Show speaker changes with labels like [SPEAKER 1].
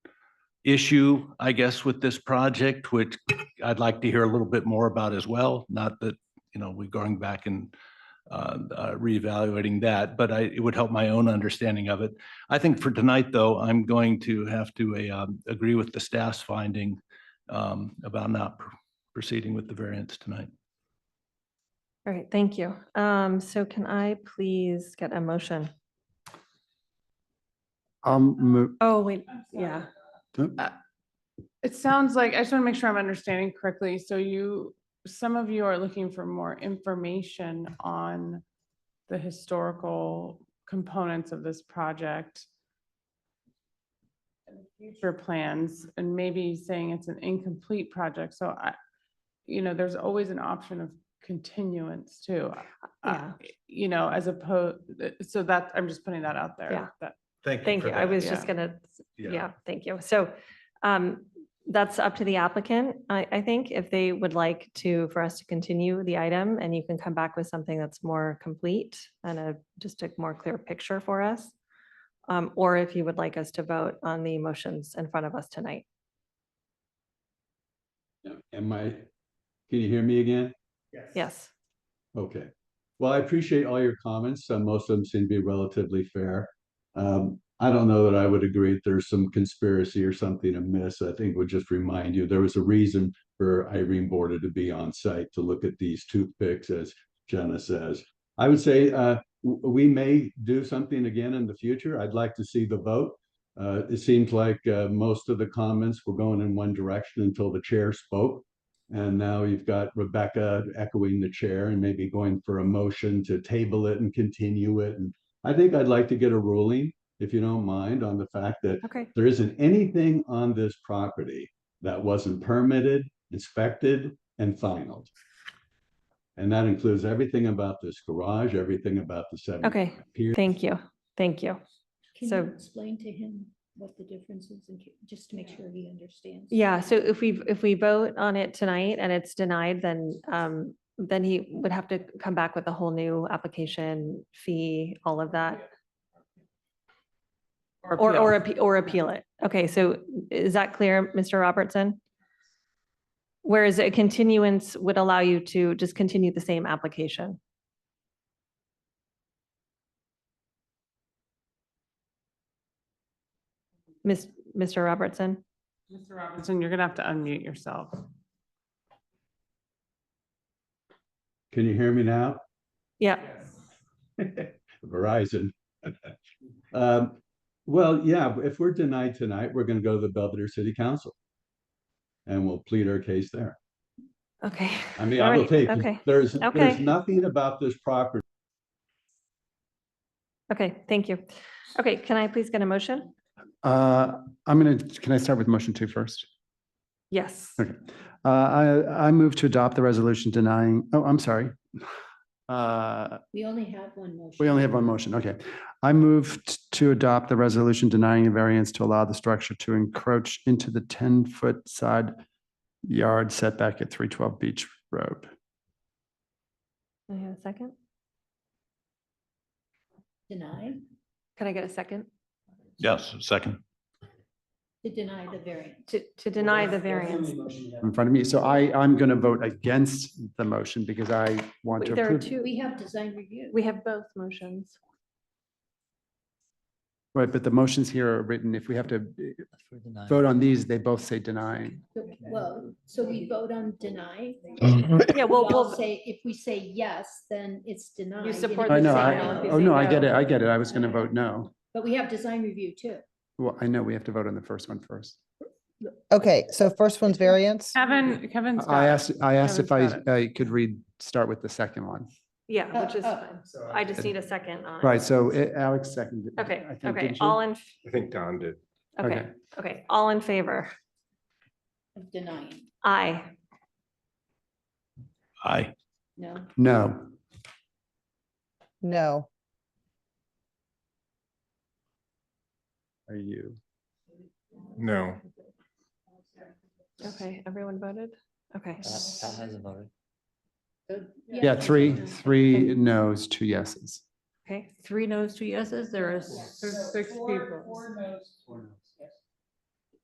[SPEAKER 1] issue, I guess, with this project, which I'd like to hear a little bit more about as well. Not that, you know, we're going back and uh, uh, reevaluating that, but I, it would help my own understanding of it. I think for tonight, though, I'm going to have to uh, um, agree with the staff's finding um, about not pr- proceeding with the variance tonight.
[SPEAKER 2] All right, thank you. Um, so can I please get a motion?
[SPEAKER 3] Um, mo-
[SPEAKER 2] Oh, wait, yeah.
[SPEAKER 4] It sounds like, I just want to make sure I'm understanding correctly. So you, some of you are looking for more information on the historical components of this project. and Future plans and maybe saying it's an incomplete project. So I, you know, there's always an option of continuance too.
[SPEAKER 2] Yeah.
[SPEAKER 4] Uh, You know, as opposed, so that, I'm just putting that out there.
[SPEAKER 2] Yeah.
[SPEAKER 4] that-
[SPEAKER 2] Thank you. I was just
[SPEAKER 4] yeah.
[SPEAKER 2] gonna,
[SPEAKER 1] Yeah.
[SPEAKER 2] yeah, thank you. So um, that's up to the applicant, I, I think, if they would like to, for us to continue the item and you can come back with something that's more complete and a, just a more clear picture for us. Um, or if you would like us to vote on the motions in front of us tonight.
[SPEAKER 5] Am I, can you hear me again?
[SPEAKER 2] Yes.
[SPEAKER 5] Okay. Well, I appreciate all your comments. Uh, Most of them seem to be relatively fair. Um, I don't know that I would agree that there's some conspiracy or something amiss. I think we'll just remind you, there was a reason for Irene Border to be on site to look at these toothpicks, as Jenna says. I would say, uh, w- we may do something again in the future. I'd like to see the vote. Uh, it seems like, uh, most of the comments were going in one direction until the chair spoke. And now you've got Rebecca echoing the chair and maybe going for a motion to table it and continue it. And I think I'd like to get a ruling, if you don't mind, on the fact that
[SPEAKER 2] Okay.
[SPEAKER 5] there isn't anything on this property that wasn't permitted, inspected, and finalized. And that includes everything about this garage, everything about the seven.
[SPEAKER 2] Okay.
[SPEAKER 5] piers.
[SPEAKER 2] Thank you. Thank you.
[SPEAKER 6] Can
[SPEAKER 2] So-
[SPEAKER 6] you explain to him what the difference is and just to make sure he understands?
[SPEAKER 2] Yeah, so if we, if we vote on it tonight and it's denied, then, um, then he would have to come back with a whole new application fee, all of that, or,
[SPEAKER 4] appeal.
[SPEAKER 2] or, appe- or appeal it. Okay, so is that clear, Mr. Robertson? Whereas a continuance would allow you to just continue the same application. Miss, Mr. Robertson?
[SPEAKER 4] Mr. Robinson, you're gonna have to unmute yourself.
[SPEAKER 5] Can you hear me now?
[SPEAKER 2] Yeah,
[SPEAKER 5] Verizon. Um, well, yeah, if we're denied tonight, we're gonna go to the Belvedere City Council. And we'll plead our case there.
[SPEAKER 2] okay.
[SPEAKER 5] I mean,
[SPEAKER 2] All
[SPEAKER 5] I will
[SPEAKER 2] right,
[SPEAKER 5] take,
[SPEAKER 2] Okay.
[SPEAKER 5] there's,
[SPEAKER 2] Okay.
[SPEAKER 5] there's nothing about this property.
[SPEAKER 2] Okay, thank you. Okay, can I please get a motion?
[SPEAKER 3] uh, I'm gonna, can I start with motion two first?
[SPEAKER 2] Yes.
[SPEAKER 3] Okay. Uh, I, I move to adopt the resolution denying, oh, I'm sorry. Uh,
[SPEAKER 6] We only have one motion.
[SPEAKER 3] we only have one motion. Okay. I move t- to adopt the resolution denying a variance to allow the structure to encroach into the ten foot side yard setback at three twelve Beach Road.
[SPEAKER 2] Can I have a second?
[SPEAKER 6] Deny,
[SPEAKER 2] Can I get a second?
[SPEAKER 1] Yes, second.
[SPEAKER 6] to deny the variance.
[SPEAKER 2] To, to deny the variance.
[SPEAKER 3] In front of me. So I, I'm going to vote against the motion because I want to
[SPEAKER 2] Wait, There are
[SPEAKER 3] approve.
[SPEAKER 2] two,
[SPEAKER 6] We have design review.
[SPEAKER 2] we have both motions.
[SPEAKER 3] Right, but the motions here are written, if we have to eh, vote on these, they both say denying.
[SPEAKER 6] Well, so we vote on deny.
[SPEAKER 3] Oh,
[SPEAKER 2] Yeah,
[SPEAKER 6] We
[SPEAKER 2] well,
[SPEAKER 6] all
[SPEAKER 2] we'll,
[SPEAKER 6] say, if we say yes, then it's denied. and
[SPEAKER 2] support
[SPEAKER 6] if
[SPEAKER 2] the
[SPEAKER 3] I
[SPEAKER 6] we
[SPEAKER 3] know,
[SPEAKER 6] say
[SPEAKER 3] I,
[SPEAKER 6] no,
[SPEAKER 2] if
[SPEAKER 3] oh,
[SPEAKER 2] you
[SPEAKER 3] no,
[SPEAKER 2] say
[SPEAKER 3] I get
[SPEAKER 2] no.
[SPEAKER 3] it, I get it, I was gonna vote no.
[SPEAKER 6] But we have design review too.
[SPEAKER 3] Well, I know we have to vote on the first one first.
[SPEAKER 7] Okay, so first one's variance.
[SPEAKER 4] Kevin, Kevin
[SPEAKER 3] I
[SPEAKER 4] Scott,
[SPEAKER 3] asked, I asked if I,
[SPEAKER 4] Kevin's got
[SPEAKER 3] I could read, start with the second one.
[SPEAKER 2] yeah, which
[SPEAKER 6] Oh,
[SPEAKER 2] is
[SPEAKER 6] oh.
[SPEAKER 2] fine. I just need a second on. it.
[SPEAKER 3] Right, so eh, Alex seconded. it,
[SPEAKER 2] Okay,
[SPEAKER 3] I think,
[SPEAKER 2] okay,
[SPEAKER 3] didn't you?
[SPEAKER 2] all in,
[SPEAKER 8] I think Don did.
[SPEAKER 2] okay,
[SPEAKER 3] Okay.
[SPEAKER 2] okay, all in favor?
[SPEAKER 6] Of denying,
[SPEAKER 2] Aye.
[SPEAKER 1] Aye.
[SPEAKER 6] no?
[SPEAKER 3] No,
[SPEAKER 7] No,
[SPEAKER 3] are you?
[SPEAKER 8] No.
[SPEAKER 2] Okay, everyone voted? Okay,
[SPEAKER 3] Uh,
[SPEAKER 6] So,
[SPEAKER 3] Yeah, three, three no's, two yeses.
[SPEAKER 2] okay.
[SPEAKER 9] Three no's, two yeses, there is,
[SPEAKER 4] there's six people.